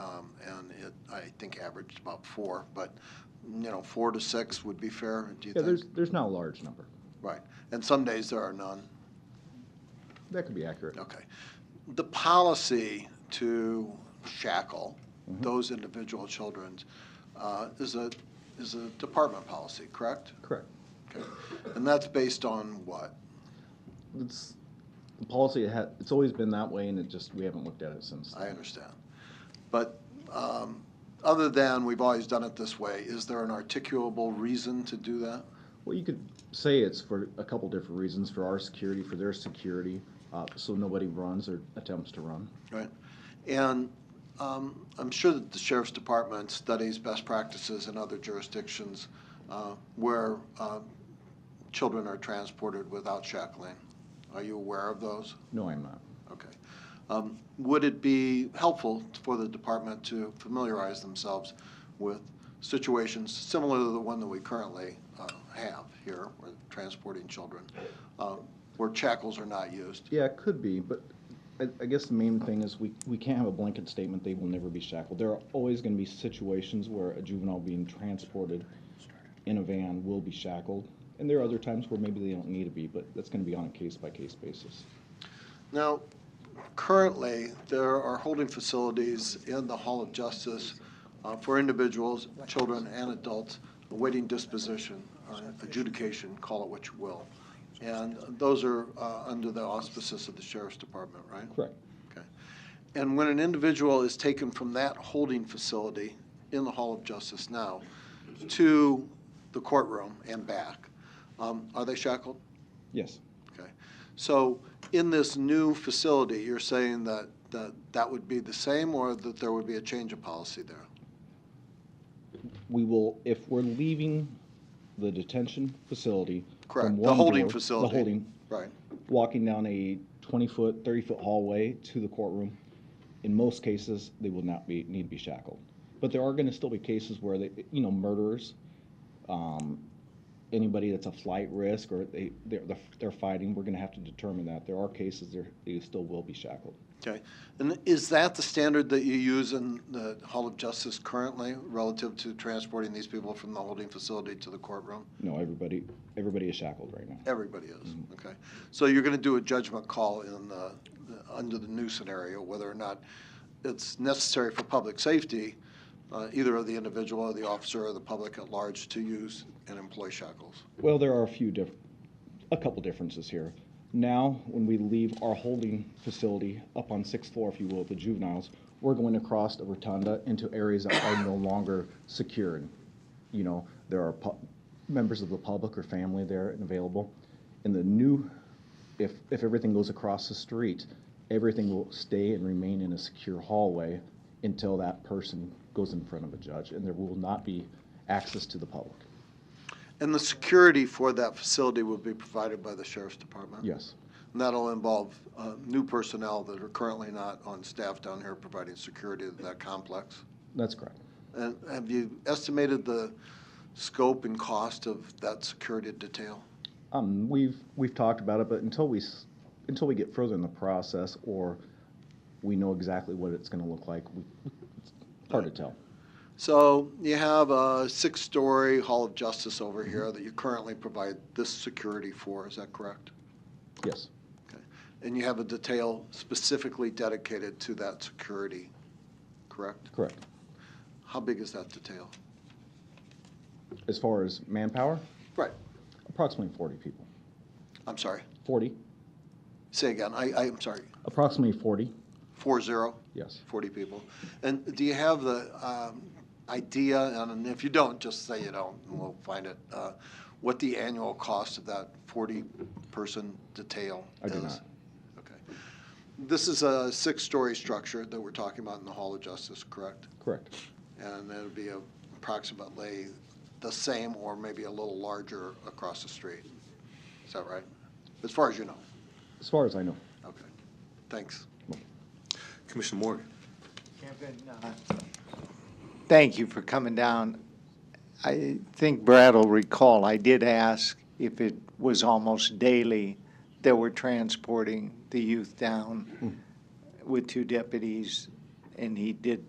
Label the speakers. Speaker 1: um, and it, I think averaged about four, but, you know, four to six would be fair, do you
Speaker 2: Yeah, there's,
Speaker 1: think?
Speaker 2: there's not a large number.
Speaker 1: Right, and some days there are none.
Speaker 2: That could be accurate.
Speaker 1: Okay. The policy to shackle those individual children uh, is a, is a department policy, correct?
Speaker 2: Correct.
Speaker 1: Okay. And that's based on what?
Speaker 2: It's, the policy had, it's always been that way and it just, we haven't looked at it since.
Speaker 1: I understand. But um, other than we've always done it this way, is there an articulable reason to do that?
Speaker 2: Well, you could say it's for a couple different reasons, for our security, for their security, uh, so nobody runs or attempts to run.
Speaker 1: Right. And um, I'm sure that the sheriff's department studies best practices in other jurisdictions uh, where uh, children are transported without shackling. Are you aware of those?
Speaker 2: No, I'm not.
Speaker 1: Okay. Um, Would it be helpful for the department to familiarize themselves with situations similar to the one that we currently uh, have here, where transporting children, uh, where shackles are not used?
Speaker 2: Yeah, it could be, but I, I guess the main thing is we, we can't have a blanket statement, they will never be shackled. There are always gonna be situations where a juvenile being transported in a van will be shackled. And there are other times where maybe they don't need to be, but that's gonna be on a case-by-case basis.
Speaker 1: Now, currently, there are holding facilities in the Hall of Justice uh, for individuals, children, and adults awaiting disposition or adjudication, call it what you will. And those are uh, under the auspices of the Sheriff's Department, right?
Speaker 2: Correct.
Speaker 1: Okay. And when an individual is taken from that holding facility in the Hall of Justice now to the courtroom and back, um, are they shackled?
Speaker 2: Yes,
Speaker 1: Okay. So in this new facility, you're saying that, that that would be the same or that there would be a change of policy there?
Speaker 2: we will, if we're leaving the detention facility. from
Speaker 1: Correct, the
Speaker 2: one
Speaker 1: holding
Speaker 2: door-
Speaker 1: facility.
Speaker 2: The holding,
Speaker 1: Right,
Speaker 2: walking down a 20-foot, 30-foot hallway to the courtroom, in most cases, they will not be, need to be shackled. But there are going to still be cases where they, you know, murderers, um, anybody that's a flight risk or they, they're, they're fighting, we're going to have to determine that. There are cases there, they still will be shackled.
Speaker 1: okay. And is that the standard that you use in the Hall of Justice currently relative to transporting these people from the holding facility to the courtroom?
Speaker 2: No, everybody, everybody is shackled right now.
Speaker 1: Everybody is, okay. So you're going to do a judgment call in the, the- under the new scenario, whether or not it's necessary for public safety, uh, either of the individual or the officer or the public at large to use and employ shackles.
Speaker 2: Well, there are a few diff, a couple differences here. Now, when we leave our holding facility up on sixth floor, if you will, the juveniles, we're going across the rotunda into areas that are no longer secure. And, You know, there are pu- members of the public or family there and available. In the new, if, if everything goes across the street, everything will stay and remain in a secure hallway until that person goes in front of a judge, and there will not be access to the public.
Speaker 1: And the security for that facility will be provided by the sheriff's department?
Speaker 2: Yes.
Speaker 1: And that'll involve uh, new personnel that are currently not on staff down here providing security to that complex?
Speaker 2: That's correct.
Speaker 1: And have you estimated the scope and cost of that security detail?
Speaker 2: Um, we've, we've talked about it, but until we, s- until we get further in the process or we know exactly what it's gonna look like, we, it's hard to tell.
Speaker 1: So you have a six-story Hall of Justice over here that you currently provide this security for, is that correct?
Speaker 2: Yes,
Speaker 1: Okay. And you have a detail specifically dedicated to that security, correct?
Speaker 2: correct.
Speaker 1: How big is that detail?
Speaker 2: As far as manpower,
Speaker 1: Right,
Speaker 2: approximately forty people.
Speaker 1: I'm sorry.
Speaker 2: Forty,
Speaker 1: Say again, I, I- I'm sorry,
Speaker 2: approximately forty,
Speaker 1: four zero,
Speaker 2: yes.
Speaker 1: 40 people. And do you have the um, idea, and if you don't, just say you don't, and we'll find it, uh, what the annual cost of that 40-person detail
Speaker 2: I
Speaker 1: is?
Speaker 2: do not.
Speaker 1: Okay. This is a six-story structure that we're talking about in the Hall of Justice, correct?
Speaker 2: Correct,
Speaker 1: And it'll be approximately the same or maybe a little larger across the street. Is that right? As far as you know?
Speaker 2: as far as I know.
Speaker 1: Okay. Thanks.
Speaker 3: Commissioner Morgan.
Speaker 4: Thank you for coming down. I think Brad will recall, I did ask if it was almost daily that we're transporting the youth down with two deputies, and he did